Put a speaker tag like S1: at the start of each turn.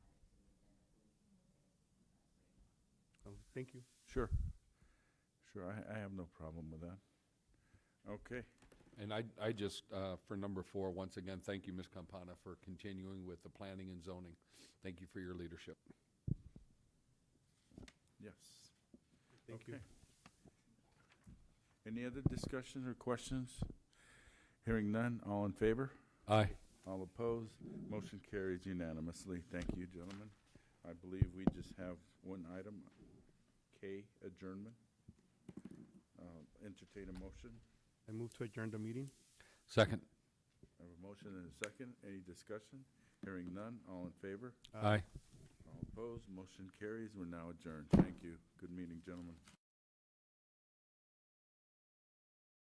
S1: Thank you.
S2: Sure. Sure, I, I have no problem with that. Okay,
S3: And I, I just, uh, for number four, once again, thank you, Ms. Campana, for continuing with the planning and zoning. Thank you for your leadership.
S2: yes.
S1: Thank you.
S2: Okay. Any other discussions or questions? Hearing none, all in favor?
S3: Aye.
S2: All opposed? Motion carries unanimously. Thank you, gentlemen. I believe we just have one item, K, adjournment. Uh, Entertain a motion.
S1: I move to adjourn the meeting.
S3: Second.
S2: I have a motion and a second. Any discussion? Hearing none, all in favor?
S1: Aye.
S2: All opposed? Motion carries. We're now adjourned. Thank you. Good meeting, gentlemen.